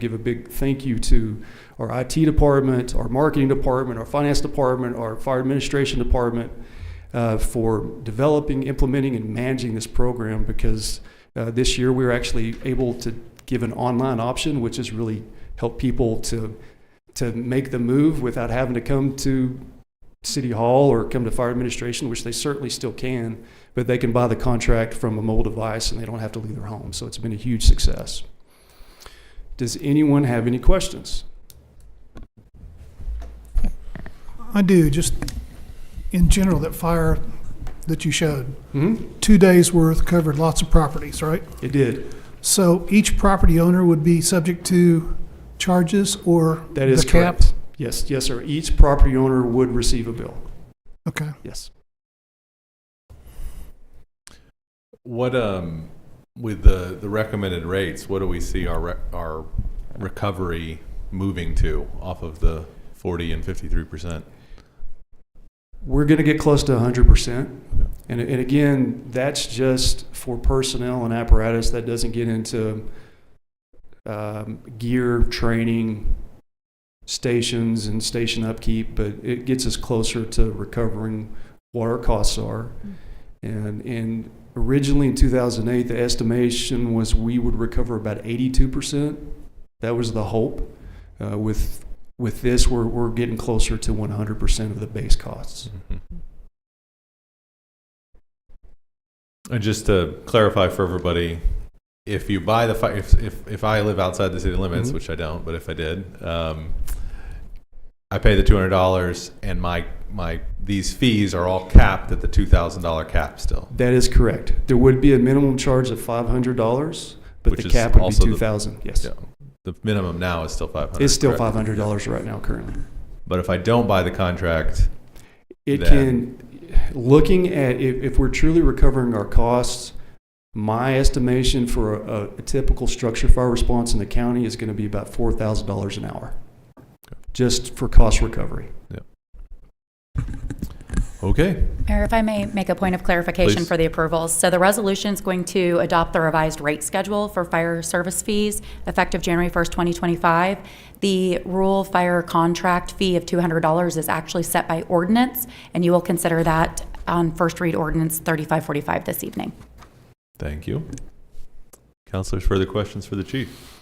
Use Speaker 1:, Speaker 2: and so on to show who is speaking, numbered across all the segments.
Speaker 1: Give a big thank you to our IT department, our marketing department, our finance department, our fire administration department uh, for developing, implementing, and managing this program because uh, this year we were actually able to give an online option, which has really helped people to to make the move without having to come to city hall or come to fire administration, which they certainly still can, but they can buy the contract from a mobile device and they don't have to leave their home. So it's been a huge success. Does anyone have any questions?
Speaker 2: I do, just in general, that fire that you showed,
Speaker 1: hmm
Speaker 2: two days' worth covered lots of properties, right?
Speaker 1: It did.
Speaker 2: So each property owner would be subject to charges or
Speaker 1: That is
Speaker 2: the cap?
Speaker 1: correct. Yes, yes, sir. Each property owner would receive a bill.
Speaker 2: Okay.
Speaker 1: Yes.
Speaker 3: What, um, with the, the recommended rates, what do we see our, re- our recovery moving to off of the 40 and 53%?
Speaker 1: We're going to get close to 100%.
Speaker 3: Okay.
Speaker 1: And, and again, that's just for personnel and apparatus. That doesn't get into um, gear, training, stations, and station upkeep, but it gets us closer to recovering what our costs are. And, and originally in 2008, the estimation was we would recover about 82%. That was the hope. Uh, with, with this, we're, we're getting closer to 100% of the base costs.
Speaker 3: Mhm. And just to clarify for everybody, if you buy the, fi- if, if, if I live outside the city limits,
Speaker 1: Mhm.
Speaker 3: which I don't, but if I did, um, I pay the $200 and my, my, these fees are all capped at the $2,000 cap still.
Speaker 1: That is correct. There would be a minimum charge of five hundred dollars, but
Speaker 3: Which
Speaker 1: the
Speaker 3: is
Speaker 1: cap would be
Speaker 3: also the-
Speaker 1: two thousand. Yes,
Speaker 3: Yeah. The minimum now is still 500.
Speaker 1: it's still
Speaker 3: correct?
Speaker 1: five hundred dollars right now currently.
Speaker 3: But if I don't buy the contract,
Speaker 1: It
Speaker 3: Then-
Speaker 1: can, looking at if, if we're truly recovering our costs, my estimation for a, a typical structure fire response in the county is going to be about four thousand dollars an hour, just for cost recovery.
Speaker 3: okay.
Speaker 4: Mayor, if I may make a point of clarification
Speaker 3: Please.
Speaker 4: for the approvals. So the resolution is going to adopt the revised rate schedule for fire service fees effective January 1st, 2025. The rural fire contract fee of $200 is actually set by ordinance, and you will consider that on first read ordinance 3545 this evening.
Speaker 3: Thank you. Counselors, further questions for the chief?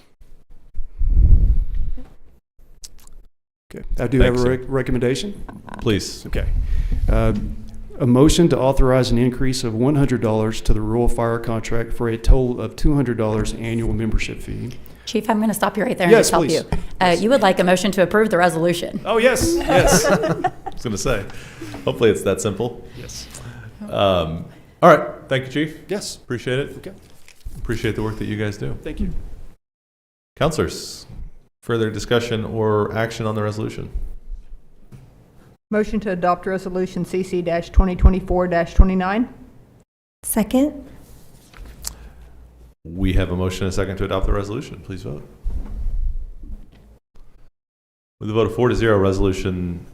Speaker 1: Okay, I do
Speaker 3: Thanks,
Speaker 1: have a
Speaker 3: sir.
Speaker 1: rec- recommendation.
Speaker 3: Please.
Speaker 1: Okay. Uh, A motion to authorize an increase of $100 to the rural fire contract for a total of $200 annual membership fee.
Speaker 4: Chief, I'm going to stop you right there and
Speaker 1: Yes,
Speaker 4: just help
Speaker 1: please.
Speaker 4: you. Uh, You would like a motion to approve the resolution?
Speaker 1: Oh, yes, yes,
Speaker 3: I was going to say, hopefully it's that simple.
Speaker 1: yes.
Speaker 3: Um, all right. Thank you, chief.
Speaker 1: Yes,
Speaker 3: Appreciate it.
Speaker 1: Okay.
Speaker 3: Appreciate the work that you guys do.
Speaker 1: thank you.
Speaker 3: Counselors, further discussion or action on the resolution?
Speaker 5: Motion to adopt Resolution CC-2024-29?
Speaker 6: Second?
Speaker 3: We have a motion and a second to adopt the resolution. Please vote. With a vote of four to zero, Resolution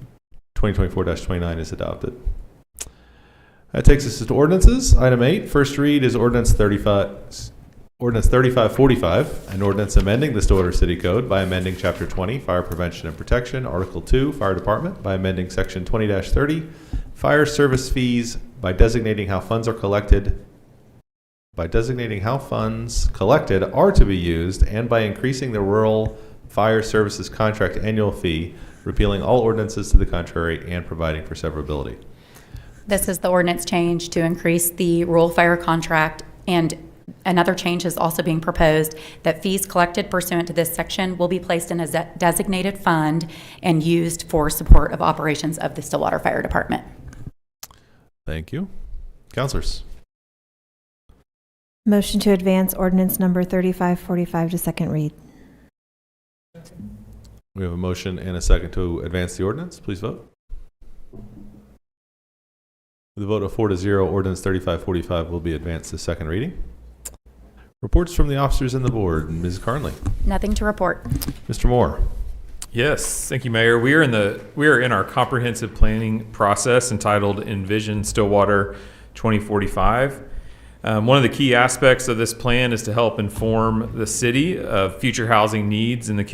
Speaker 3: 2024-29 is adopted. That takes us to ordinances. Item eight, first read is ordinance 35, ordinance 3545, an ordinance amending the Stillwater City Code by amending Chapter 20, Fire Prevention and Protection, Article 2, Fire Department, by amending Section 20-30, Fire Service Fees, by designating how funds are collected by designating how funds collected are to be used and by increasing the rural fire services contract annual fee, repealing all ordinances to the contrary, and providing for severability.
Speaker 4: This is the ordinance change to increase the rural fire contract, and another change is also being proposed that fees collected pursuant to this section will be placed in a ze- designated fund and used for support of operations of the Stillwater Fire Department.
Speaker 3: Thank you. Counselors,
Speaker 6: Motion to advance ordinance number 3545 to second read.
Speaker 3: we have a motion and a second to advance the ordinance. Please vote. With a vote of four to zero, ordinance 3545 will be advanced to second reading. Reports from the officers and the board. Ms. Carnley,
Speaker 4: Nothing to report.
Speaker 3: Mr. Moore.
Speaker 7: Yes, thank you, Mayor. We are in the we are in our comprehensive planning process entitled Envision Stillwater 2045. Um, one of the key aspects of this plan is to help inform the city of future housing needs in the community